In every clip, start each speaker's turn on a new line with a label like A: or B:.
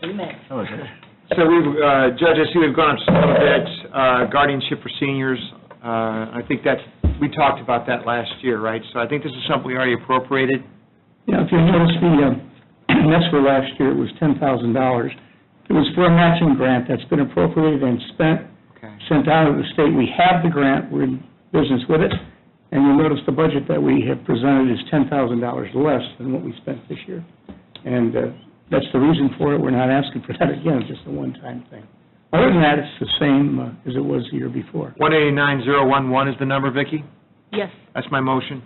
A: three minutes.
B: Oh, is it?
C: So we've, uh, Judge, I see we've gone up just a little bit, uh, guardianship for seniors. Uh, I think that's, we talked about that last year, right? So I think this is something we already appropriated.
D: Yeah, if you notice, the, uh, next for last year, it was ten thousand dollars. It was for a matching grant that's been appropriated and spent,
C: Okay.
D: sent out of the state. We have the grant, we're in business with it, and you'll notice the budget that we have presented is ten thousand dollars less than what we spent this year. And uh, that's the reason for it, we're not asking for that again, it's just a one-time thing. Other than that, it's the same uh, as it was the year before.
C: 189011 is the number, Vicki?
A: Yes.
C: That's my motion.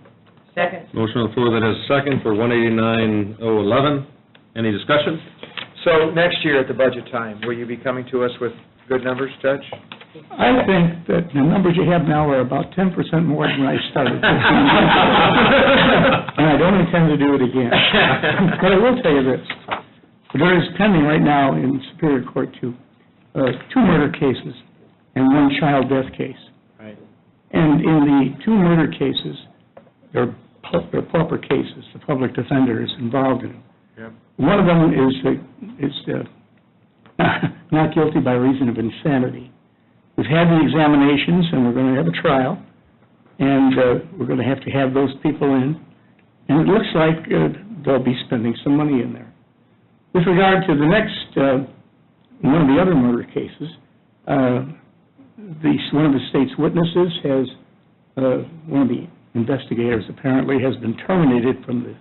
A: Second.
E: Motion on the floor that has a second for 189-011. Any discussion?
C: So next year at the budget time, will you be coming to us with good numbers, Judge?
D: I think that the numbers you have now are about ten percent more than when I started. And I don't intend to do it again. But I will tell you this, there is pending right now in Superior Court two, uh, two murder cases and one child death case.
C: Right.
D: And in the two murder cases, they're pu- they're pauper cases, the public defender is involved in them.
C: Yep.
D: One of them is, uh, is uh, not guilty by reason of insanity. We've had the examinations, and we're going to have a trial, and uh, we're going to have to have those people in, and it looks like uh, they'll be spending some money in there. With regard to the next, uh, one of the other murder cases, uh, the, one of the state's witnesses has, uh, one of the investigators apparently has been terminated from the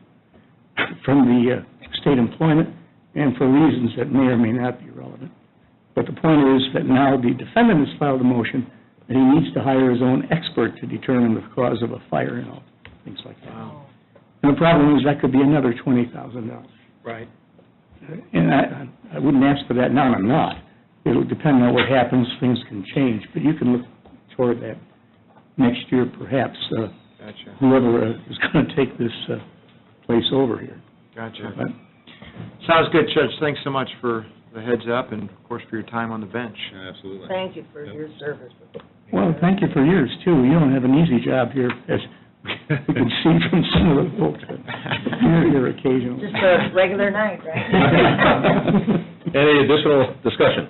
D: from the uh, state employment and for reasons that may or may not be relevant. But the point is that now the defendant has filed a motion that he needs to hire his own expert to determine the cause of a fire and all, things like that. And the problem is that could be another twenty thousand dollars.
C: Right.
D: And I, I wouldn't ask for that now, and I'm not. It'll depend on what happens, things can change, but you can look toward that next year perhaps, uh,
C: Gotcha,
D: whoever uh, is going to take this uh, place over here.
C: gotcha.
D: But
C: Sounds good, Judge. Thanks so much for the heads up and, of course, for your time on the bench.
E: Absolutely.
A: Thank you for your service.
D: Well, thank you for yours, too. You don't have an easy job here, as we can see from some of the folks that you're here occasionally.
A: Just a regular night, right?
E: Any additional discussion?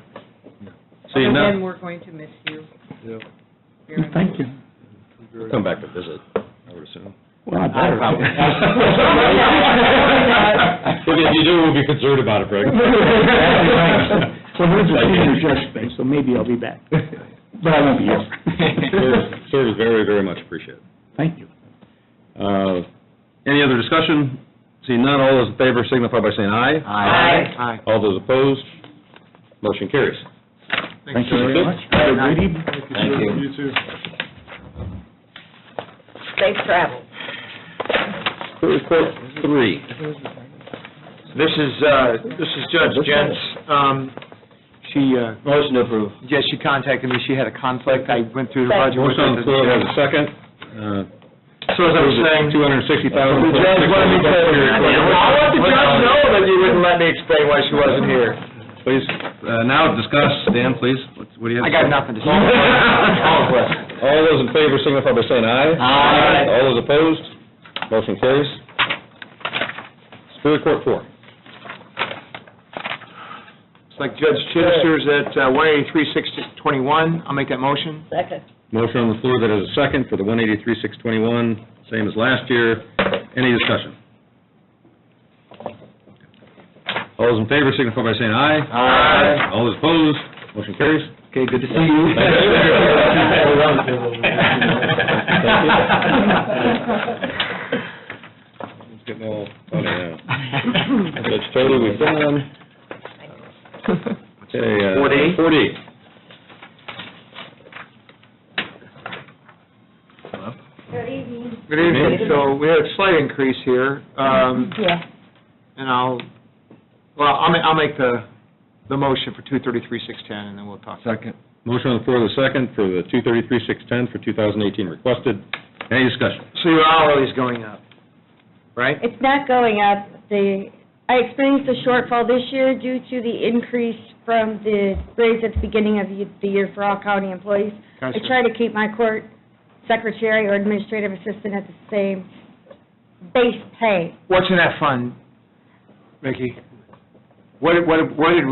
E: Seeing
F: And
E: none,
F: we're going to miss you.
D: Thank you.
E: we'll come back to visit, I would assume.
D: Well, I better.
E: If you do, we'll be concerned about it, Greg.
D: So here's a senior judge thing, so maybe I'll be back, but I won't be
E: Service-
D: here.
E: Service very, very much appreciated.
D: Thank you.
E: Uh, Any other discussion? Seeing none, all those in favor signify by saying aye.
A: Aye.
C: Hi.
E: All those opposed, motion carries.
D: Thank you very much. Have a great evening.
E: Thank you.
A: Safe travels.
E: Report three.
C: This is, uh, this is Judge Jens. Um, She, uh,
B: Motion to approve.
C: yes, she contacted me. She had a conflict. I went through the budget. with
E: Motion on the floor,
C: her.
E: has a second. Uh,
C: So as I was saying,
E: Two hundred and sixty thousand.
C: The judge wanted me to I'll let the judge know that you wouldn't let me explain why she wasn't here.
E: Please, uh, now discuss, Dan, please, What's- what do you have?
C: I
E: to
C: got
E: say?
C: nothing to say.
E: All those in favor signify by saying aye.
C: Aye.
E: All those opposed, motion carries. Superior Court four.
C: It's like Judge Chittister's at uh, 183-621. I'll make that motion.
A: Second.
E: Motion on the floor that is a second for the one eighty-three, six twenty-one, same as last year. Any discussion? All those in favor signify by saying aye. Aye. All those opposed, motion carries.
C: Okay, good to see you.
E: It's getting all funny now. Judge Total, we've done. Okay, uh,
C: Four D?
E: Four D.
C: Good evening. So we had a slight increase here, um,
A: Yeah.
C: and I'll, well, I'll ma- I'll make the, the motion for 233-610, and then we'll talk.
B: Second.
E: Motion on the floor, the second, for the two thirty-three, six ten for two thousand eighteen requested. Any discussion?
C: So your hourly's going up, right?
G: It's not going up. The, I experienced a shortfall this year due to the increase from the raise at the beginning of the- the year for all county employees. I
C: Gotcha.
G: try to keep my court secretary or administrative assistant at the same base pay.
C: What's in that fund, Vicki? What, what, what did